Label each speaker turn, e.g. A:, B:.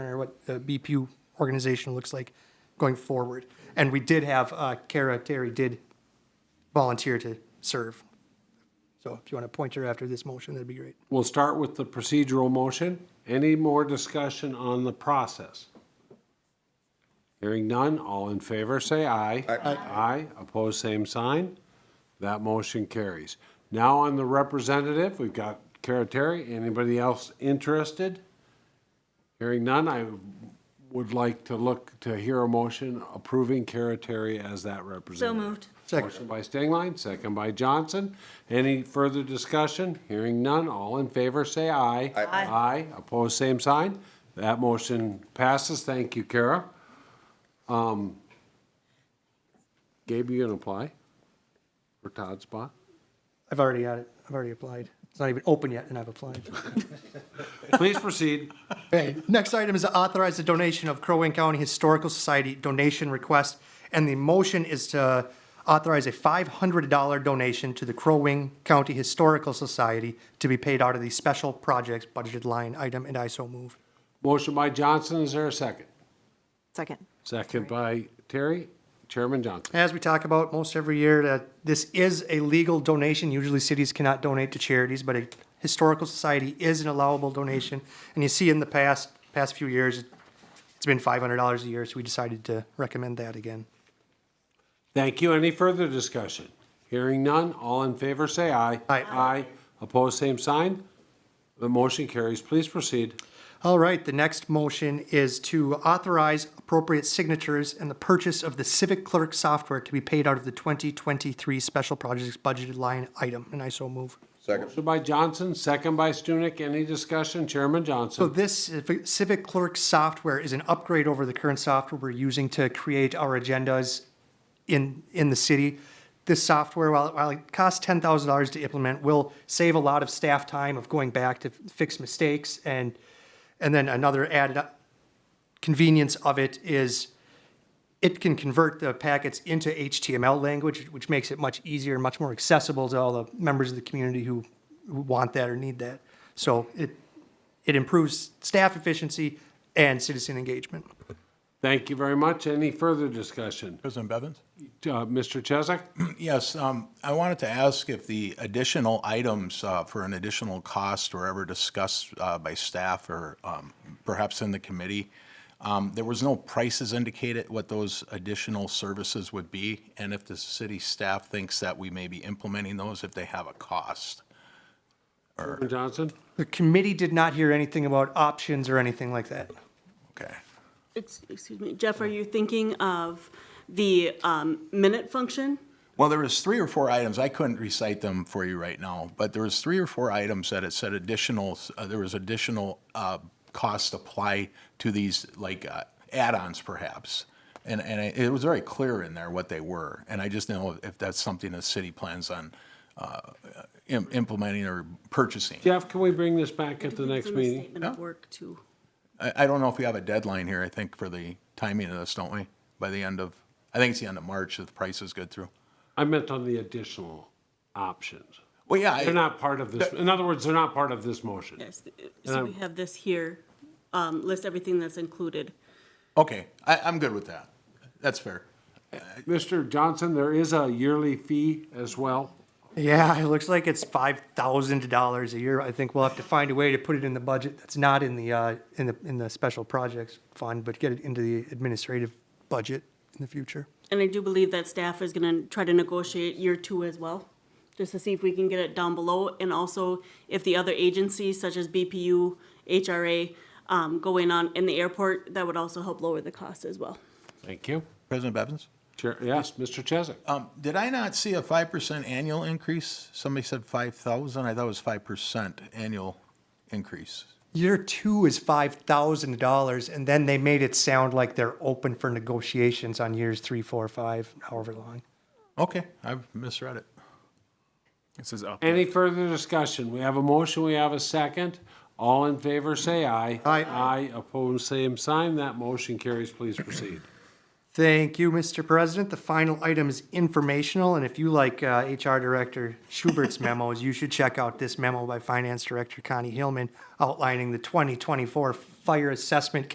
A: what the BPU organization looks like going forward. And we did have, uh, Kara Terry did volunteer to serve. So if you want to point her after this motion, that'd be great.
B: We'll start with the procedural motion. Any more discussion on the process? Hearing none, all in favor, say aye. Aye. Aye, opposed, same sign. That motion carries. Now on the representative, we've got Kara Terry. Anybody else interested? Hearing none, I would like to look, to hear a motion approving Kara Terry as that
C: So
B: representative.
C: moved.
A: Second.
B: Motion by Stingline, second by Johnson. Any further discussion? Hearing none, all in favor, say aye. Aye. Aye, opposed, same sign. That motion passes, thank you, Kara. Um, Gabe, you gonna apply for Todd's spot?
A: I've already had it. I've already applied. It's not even open yet, and I've applied.
B: Please proceed.
A: Okay, next item is to authorize the donation of Crow Wing County Historical Society donation request. And the motion is to authorize a $500 donation to the Crow Wing County Historical Society to be paid out of the special projects budgeted line item, and I so move.
B: Motion by Johnson, is there a second?
C: Second.
B: Second by Terry. Chairman Johnson.
A: As we talk about most every year, that this is a legal donation. Usually cities cannot donate to charities, but a historical society is an allowable donation. And you see in the past, past few years, it's been $500 a year, so we decided to recommend that again.
B: Thank you. Any further discussion? Hearing none, all in favor, say aye.
A: Aye.
B: Aye. Opposed, same sign. The motion carries. Please proceed.
A: All right, the next motion is to authorize appropriate signatures and the purchase of the civic clerk software to be paid out of the 2023 special projects budgeted line item, and I so move.
D: Second.
B: Motion by Johnson, second by Stunek. Any discussion? Chairman
A: So
B: Johnson.
A: this civic- civic clerk software is an upgrade over the current software we're using to create our agendas in, in the city. This software, while, while it costs ten thousand dollars to implement, will save a lot of staff time of going back to fix mistakes and, and then another added up- convenience of it is it can convert the packets into HTML language, which makes it much easier and much more accessible to all the members of the community who, who want that or need that. So it, it improves staff efficiency and citizen engagement.
B: Thank you very much. Any further discussion?
D: President Bevins?
B: Uh, Mr. Chesak?
D: Yes, um, I wanted to ask if the additional items uh, for an additional cost were ever discussed uh, by staff or um, perhaps in the committee. Um, There was no prices indicated what those additional services would be, and if the city staff thinks that we may be implementing those, if they have a cost.
B: Chairman Johnson?
A: The committee did not hear anything about options or anything like that.
D: Okay.
E: Ex- Excuse me, Jeff, are you thinking of the um, minute function?
D: Well, there was three or four items, I couldn't recite them for you right now, but there was three or four items that it said additional, uh, there was additional uh, costs apply to these, like uh, add-ons perhaps. And, and I- it was very clear in there what they were, and I just know if that's something the city plans on uh, im- implementing or purchasing.
B: Jeff, can we bring this back at the next
E: It's in the
B: meeting?
E: Statement of work too.
D: I, I don't know if we have a deadline here, I think, for the timing of this, don't we? By the end of, I think it's the end of March if the price is good through.
B: I meant on the additional options.
D: Well, yeah. I-
B: They're not part of this, in other words, they're not part of this motion.
E: Yes, so we have this here, um, list everything that's included.
D: Okay, I, I'm good with that. That's fair.
B: Mr. Johnson, there is a yearly fee as well.
A: Yeah, it looks like it's five thousand dollars a year. I think we'll have to find a way to put it in the budget. That's not in the, uh, in the, in the special projects fund, but get it into the administrative budget in the future.
E: And I do believe that staff is gonna try to negotiate year two as well, just to see if we can get it down below. And also if the other agencies such as BPU, HRA, um, go in on, in the airport, that would also help lower the cost as well.
B: Thank you.
D: President Bevins?
B: Chair, yes, Mr. Chesak?
D: Um, did I not see a five percent annual increase? Somebody said five thousand. I thought it was five percent annual increase.
A: Year two is five thousand dollars, and then they made it sound like they're open for negotiations on years three, four, five, however long.
D: Okay, I've misread it.
F: This is up.
B: Any further discussion? We have a motion, we have a second. All in favor, say aye.
A: Aye.
B: Aye, opposed, same sign. That motion carries. Please proceed.
A: Thank you, Mr. President. The final item is informational, and if you like uh, HR Director Schubert's memos, you should check out this memo by Finance Director Connie Hillman outlining the 2024 fire assessment